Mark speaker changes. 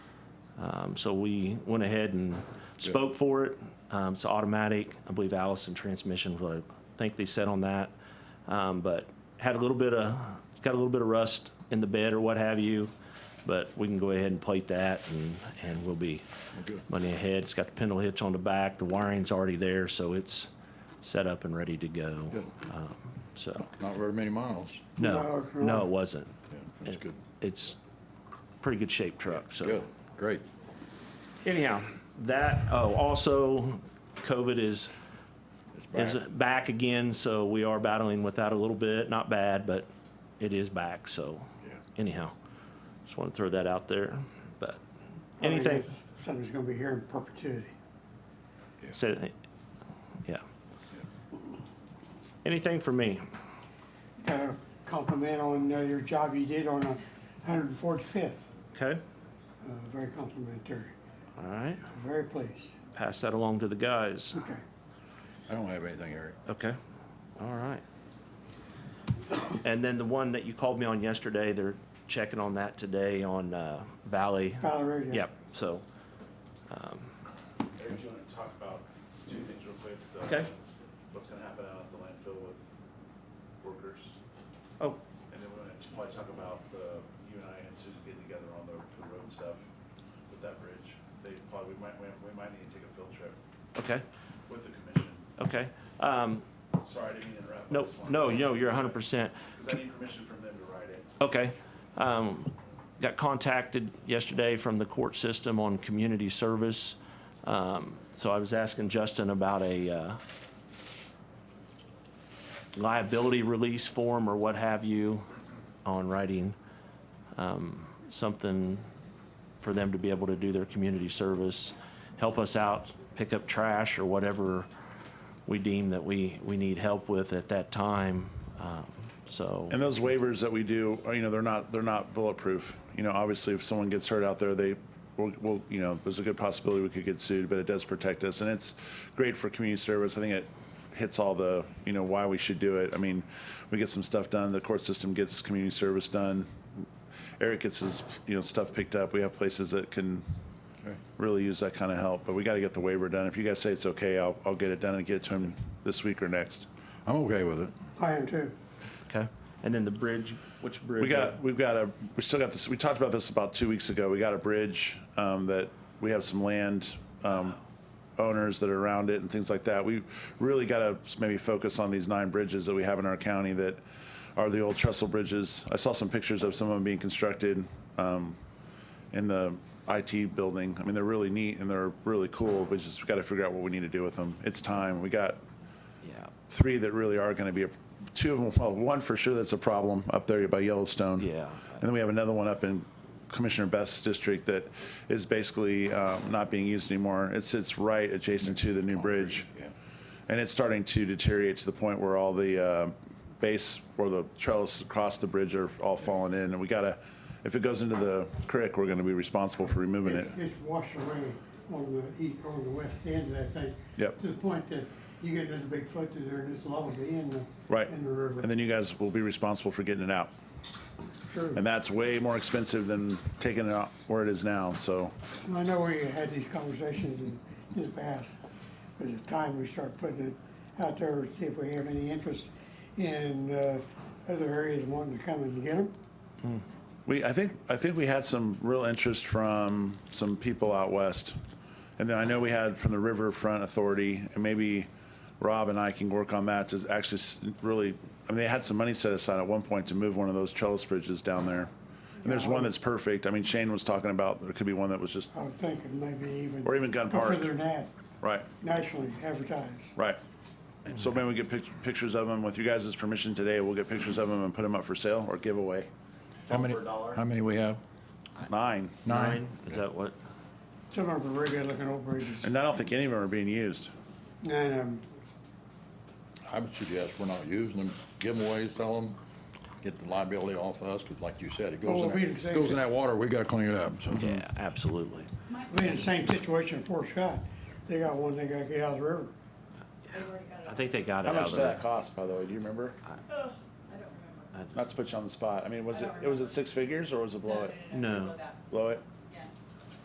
Speaker 1: Um, So we went ahead and spoke for it. Um, It's automatic. I believe Allison Transmission, was what I think they said on that. Um, But had a little bit of, got a little bit of rust in the bed or what have you. But we can go ahead and plate that and, and we'll be money ahead. It's got the pendle hitch on the back. The wiring's already there, so it's set up and ready to go.
Speaker 2: Good.
Speaker 1: Um, So,
Speaker 2: Not very many miles.
Speaker 1: no,
Speaker 3: Wow,
Speaker 1: no, it wasn't.
Speaker 2: Yeah, That's good.
Speaker 1: It's pretty good shaped truck, so.
Speaker 2: Good, great.
Speaker 1: Anyhow, that, oh, also, COVID is,
Speaker 2: It's
Speaker 1: is
Speaker 2: back.
Speaker 1: back again, so we are battling with that a little bit. Not bad, but it is back, so
Speaker 2: Yeah.
Speaker 1: anyhow, just want to throw that out there. But
Speaker 3: I mean,
Speaker 1: anything,
Speaker 3: it's Something's gonna be here in perpetuity.
Speaker 1: so, yeah. Anything for me?
Speaker 3: Gotta compliment on uh, your job you did on hundred and forty-fifth, uh,
Speaker 1: Okay,
Speaker 3: very complimentary,
Speaker 1: all right,
Speaker 3: very pleased,
Speaker 1: pass that along to the guys.
Speaker 3: okay.
Speaker 2: I don't have anything, Eric.
Speaker 1: Okay, all right. And then the one that you called me on yesterday, they're checking on that today on uh, Valley.
Speaker 3: Valerie, uh,
Speaker 1: Yep, so,
Speaker 4: Eric, do you want to talk about two things real quick? The-
Speaker 1: Okay.
Speaker 4: What's gonna happen out at the landfill with workers?
Speaker 1: oh,
Speaker 4: And then we're gonna probably talk about, uh, you and I and Susan getting together on the, the road stuff with that bridge. They probably, we might, we we might need to take a field trip
Speaker 1: okay,
Speaker 4: with the commission.
Speaker 1: okay. Um,
Speaker 4: Sorry, I didn't mean to interrupt. I
Speaker 1: No,
Speaker 4: just wanted-
Speaker 1: no, no, you're hundred percent.
Speaker 4: Cause I need permission from them to write it.
Speaker 1: Okay. Um, Got contacted yesterday from the court system on community service. Um, So I was asking Justin about a uh, liability release form or what have you on writing um, something for them to be able to do their community service, help us out, pick up trash or whatever we deem that we, we need help with at that time. Um, So.
Speaker 5: And those waivers that we do, uh, you know, they're not, they're not bulletproof. You know, obviously, if someone gets hurt out there, they, will will you know, there's a good possibility we could get sued, but it does protect us, and it's great for community service. I think it hits all the, you know, why we should do it. I mean, we get some stuff done, the court system gets community service done. Eric gets his, you know, stuff picked up. We have places that can
Speaker 2: Okay.
Speaker 5: really use that kind of help, but we gotta get the waiver done. If you guys say it's okay, I'll, I'll get it done and get it to him this week or next.
Speaker 2: I'm okay with it.
Speaker 3: I am too.
Speaker 1: Okay. And then the bridge, which bridge?
Speaker 5: We got, we've got a, we still got this, we talked about this about two weeks ago. We got a bridge um, that, we have some land um, owners that are around it and things like that. We really got to maybe focus on these nine bridges that we have in our county that are the old trestle bridges. I saw some pictures of some of them being constructed um, in the IT building. I mean, they're really neat and they're really cool. We just got to figure out what we need to do with them. It's time. We got
Speaker 1: Yeah.
Speaker 5: three that really are going to be, a two of them, well, one for sure that's a problem up there by Yellowstone.
Speaker 1: Yeah.
Speaker 5: And then we have another one up in Commissioner Best's district that is basically um, not being used anymore. It sits right adjacent to the new bridge.
Speaker 2: Yeah.
Speaker 5: And it's starting to deteriorate to the point where all the uh, base or the trellis across the bridge are all falling in. And we gotta, if it goes into the creek, we're gonna be responsible for removing it.
Speaker 3: It's, it's washed away on the east, on the west end, I think.
Speaker 5: Yep.
Speaker 3: To the point that you get another big foot through there and it's level the end of-
Speaker 5: Right.
Speaker 3: in the river.
Speaker 5: And then you guys will be responsible for getting it out.
Speaker 3: True.
Speaker 5: And that's way more expensive than taking it out where it is now, so.
Speaker 3: I know we had these conversations in, in the past, but it's time we start putting it out there, to see if we have any interest in, uh, other areas wanting to come and get them.
Speaker 5: We, I think, I think we had some real interest from some people out west. And then I know we had from the Riverfront Authority, and maybe Rob and I can work on that to actually s- really, I mean, they had some money set aside at one point to move one of those trellis bridges down there. And there's one that's perfect. I mean, Shane was talking about, there could be one that was just,
Speaker 3: I was thinking maybe even.
Speaker 5: Or even Gun
Speaker 3: go
Speaker 5: Park.
Speaker 3: Further than that,
Speaker 5: right,
Speaker 3: nationally advertised.
Speaker 5: right. So maybe we get pic- pictures of them. With you guys' permission today, we'll get pictures of them and put them up for sale or giveaway.
Speaker 2: How many,
Speaker 4: for a dollar?
Speaker 2: how many we have?
Speaker 5: Nine.
Speaker 1: Nine, is that what?
Speaker 3: Some of them are very good looking old bridges.
Speaker 5: And I don't think any of them are being used.
Speaker 3: Nine of them,
Speaker 2: I would suggest we're not using them, give them away, sell them, get the liability off of us, because like you said, it
Speaker 3: Oh,
Speaker 2: goes in
Speaker 3: we didn't say
Speaker 2: that, goes in
Speaker 3: that.
Speaker 2: that water, we gotta clean it up, so.
Speaker 1: Yeah, absolutely.
Speaker 3: we in the same situation in Fort Scott. They got one they gotta get out of the river.
Speaker 1: I think they got it
Speaker 5: How
Speaker 1: out
Speaker 5: much
Speaker 1: of
Speaker 5: did
Speaker 1: there.
Speaker 5: that cost, by the way? Do you remember?
Speaker 6: I don't remember.
Speaker 5: Not to put you on the spot. I mean, was
Speaker 6: I
Speaker 5: it,
Speaker 6: don't
Speaker 5: it was it
Speaker 6: remember.
Speaker 5: six figures or was it below it?
Speaker 1: No.
Speaker 5: Below it?